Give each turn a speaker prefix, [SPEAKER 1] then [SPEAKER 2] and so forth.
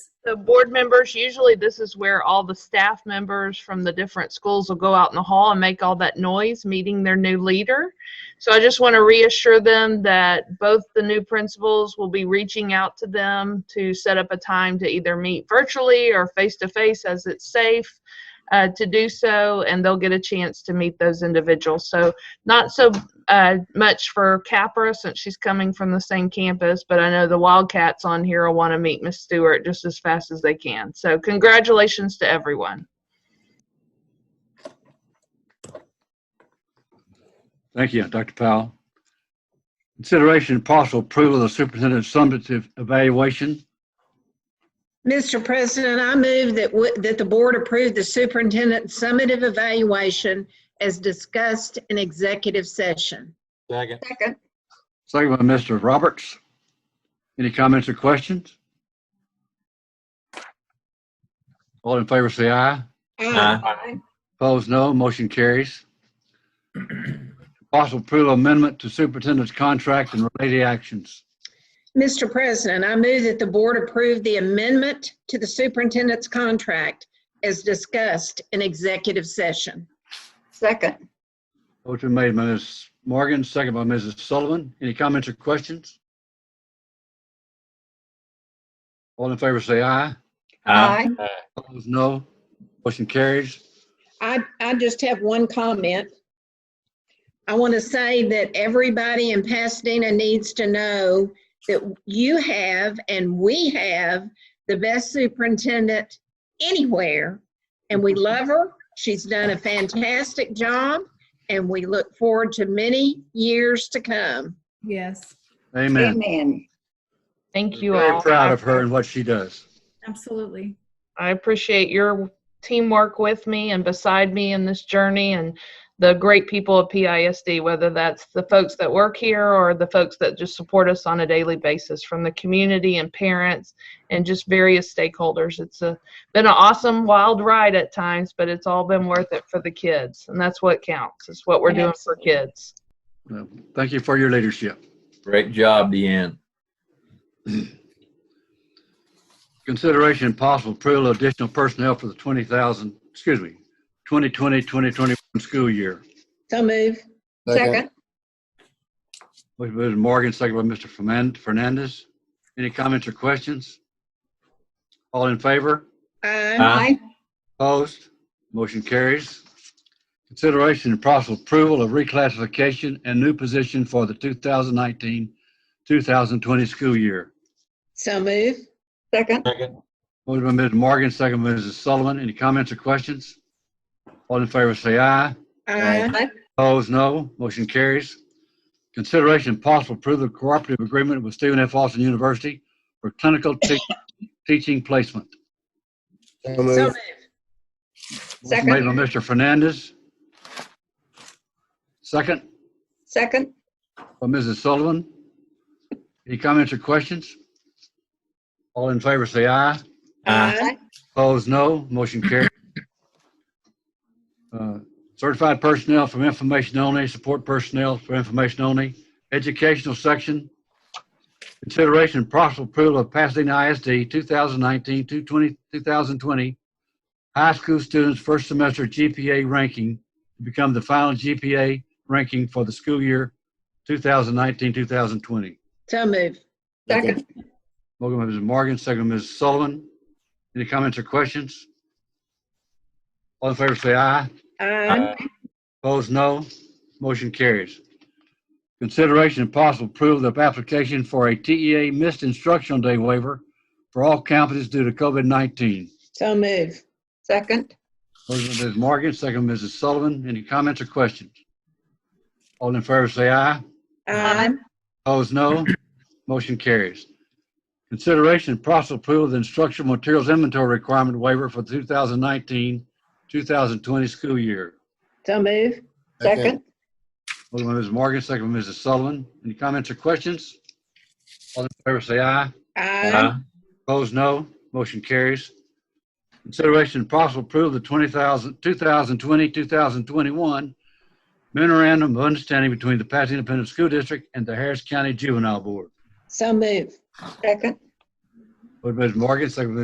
[SPEAKER 1] the board members, usually this is where all the staff members from the different schools will go out in the hall and make all that noise, meeting their new leader. So I just want to reassure them that both the new principals will be reaching out to them to set up a time to either meet virtually or face-to-face as it's safe uh, to do so, and they'll get a chance to meet those individuals. So not so uh, much for Capra since she's coming from the same campus, but I know the Wildcats on here will want to meet Miss Stewart just as fast as they can. So congratulations to everyone.
[SPEAKER 2] Thank you, Dr. Powell. Consideration and possible approval of the superintendent's summative evaluation.
[SPEAKER 3] Mr. President, I move that, w- that the board approve the superintendent's summative evaluation as discussed in executive session.
[SPEAKER 4] Second.
[SPEAKER 5] Second.
[SPEAKER 2] Second by Mr. Roberts. Any comments or questions? All in favor, say aye.
[SPEAKER 4] Aye.
[SPEAKER 2] Opposed, no. Motion carries. Possible approval amendment to superintendent's contract and related actions.
[SPEAKER 3] Mr. President, I move that the board approve the amendment to the superintendent's contract as discussed in executive session.
[SPEAKER 5] Second.
[SPEAKER 2] Motion made by Ms. Morgan, second by Mrs. Sullivan. Any comments or questions? All in favor, say aye.
[SPEAKER 5] Aye.
[SPEAKER 2] Opposed, no. Motion carries.
[SPEAKER 3] I, I just have one comment. I want to say that everybody in Pasadena needs to know that you have and we have the best superintendent anywhere. And we love her. She's done a fantastic job and we look forward to many years to come.
[SPEAKER 6] Yes,
[SPEAKER 2] Amen.
[SPEAKER 5] Amen.
[SPEAKER 1] Thank you
[SPEAKER 2] Very
[SPEAKER 1] all.
[SPEAKER 2] proud of her and what she does.
[SPEAKER 6] absolutely.
[SPEAKER 1] I appreciate your teamwork with me and beside me in this journey and the great people of PISD, whether that's the folks that work here or the folks that just support us on a daily basis from the community and parents and just various stakeholders. It's a, been an awesome wild ride at times, but it's all been worth it for the kids. And that's what counts. It's what we're doing for kids.
[SPEAKER 2] Well, Thank you for your leadership.
[SPEAKER 4] Great job, Deanne.
[SPEAKER 2] Consideration and possible approval of additional personnel for the 20,000, excuse me, 2020, 2021 school year.
[SPEAKER 3] So move.
[SPEAKER 5] Second.
[SPEAKER 2] Motion by Mrs. Morgan, second by Mr. Fernan- Fernandez. Any comments or questions? All in favor?
[SPEAKER 3] Aye.
[SPEAKER 4] Aye.
[SPEAKER 2] Opposed? Motion carries. Consideration and possible approval of reclassification and new position for the 2019, 2020 school year.
[SPEAKER 3] So move.
[SPEAKER 5] Second.
[SPEAKER 4] Second.
[SPEAKER 2] Motion by Mrs. Morgan, second by Mrs. Sullivan. Any comments or questions? All in favor, say aye.
[SPEAKER 3] Aye.
[SPEAKER 2] Opposed, no. Motion carries. Consideration and possible approval of cooperative agreement with Stephen F. Austin University for clinical te- teaching placement.
[SPEAKER 7] So
[SPEAKER 3] So
[SPEAKER 7] moved.
[SPEAKER 3] moved.
[SPEAKER 2] Motion Made by Mr. Fernandez. Second
[SPEAKER 5] Second.
[SPEAKER 2] by Mrs. Sullivan. Any comments or questions? All in favor, say aye.
[SPEAKER 4] Aye.
[SPEAKER 2] Opposed, no. Motion carried. Uh, Certified personnel from information only, support personnel for information only, educational section. Consideration and possible approval of Pasadena ISD 2019, 2020, 2020 high school students' first semester GPA ranking to become the final GPA ranking for the school year 2019, 2020.
[SPEAKER 3] So move.
[SPEAKER 5] Second.
[SPEAKER 2] Motion by Mrs. Morgan, second by Mrs. Sullivan. Any comments or questions? All in favor, say aye.
[SPEAKER 3] Aye.
[SPEAKER 2] Opposed, no. Motion carries. Consideration and possible approval of application for a TEA missed instructional day waiver for all campuses due to COVID-19.
[SPEAKER 3] So move.
[SPEAKER 5] Second.
[SPEAKER 2] Motion by Mrs. Morgan, second by Mrs. Sullivan. Any comments or questions? All in favor, say aye.
[SPEAKER 3] Aye.
[SPEAKER 2] Opposed, no. Motion carries. Consideration and possible approval of the instructional materials inventory requirement waiver for the 2019, 2020 school year.
[SPEAKER 3] So move.
[SPEAKER 5] Second.
[SPEAKER 2] Motion by Mrs. Morgan, second by Mrs. Sullivan. Any comments or questions? All in favor, say aye.
[SPEAKER 3] Aye.
[SPEAKER 4] Aye.
[SPEAKER 2] Opposed, no. Motion carries. Consideration and possible approval of the 20,000 2020, 2021 memorandum of understanding between the Pasadena Independent School District and the Harris County Juvenile Board.
[SPEAKER 3] So move.
[SPEAKER 5] Second.
[SPEAKER 2] Motion by Mrs. Morgan, second by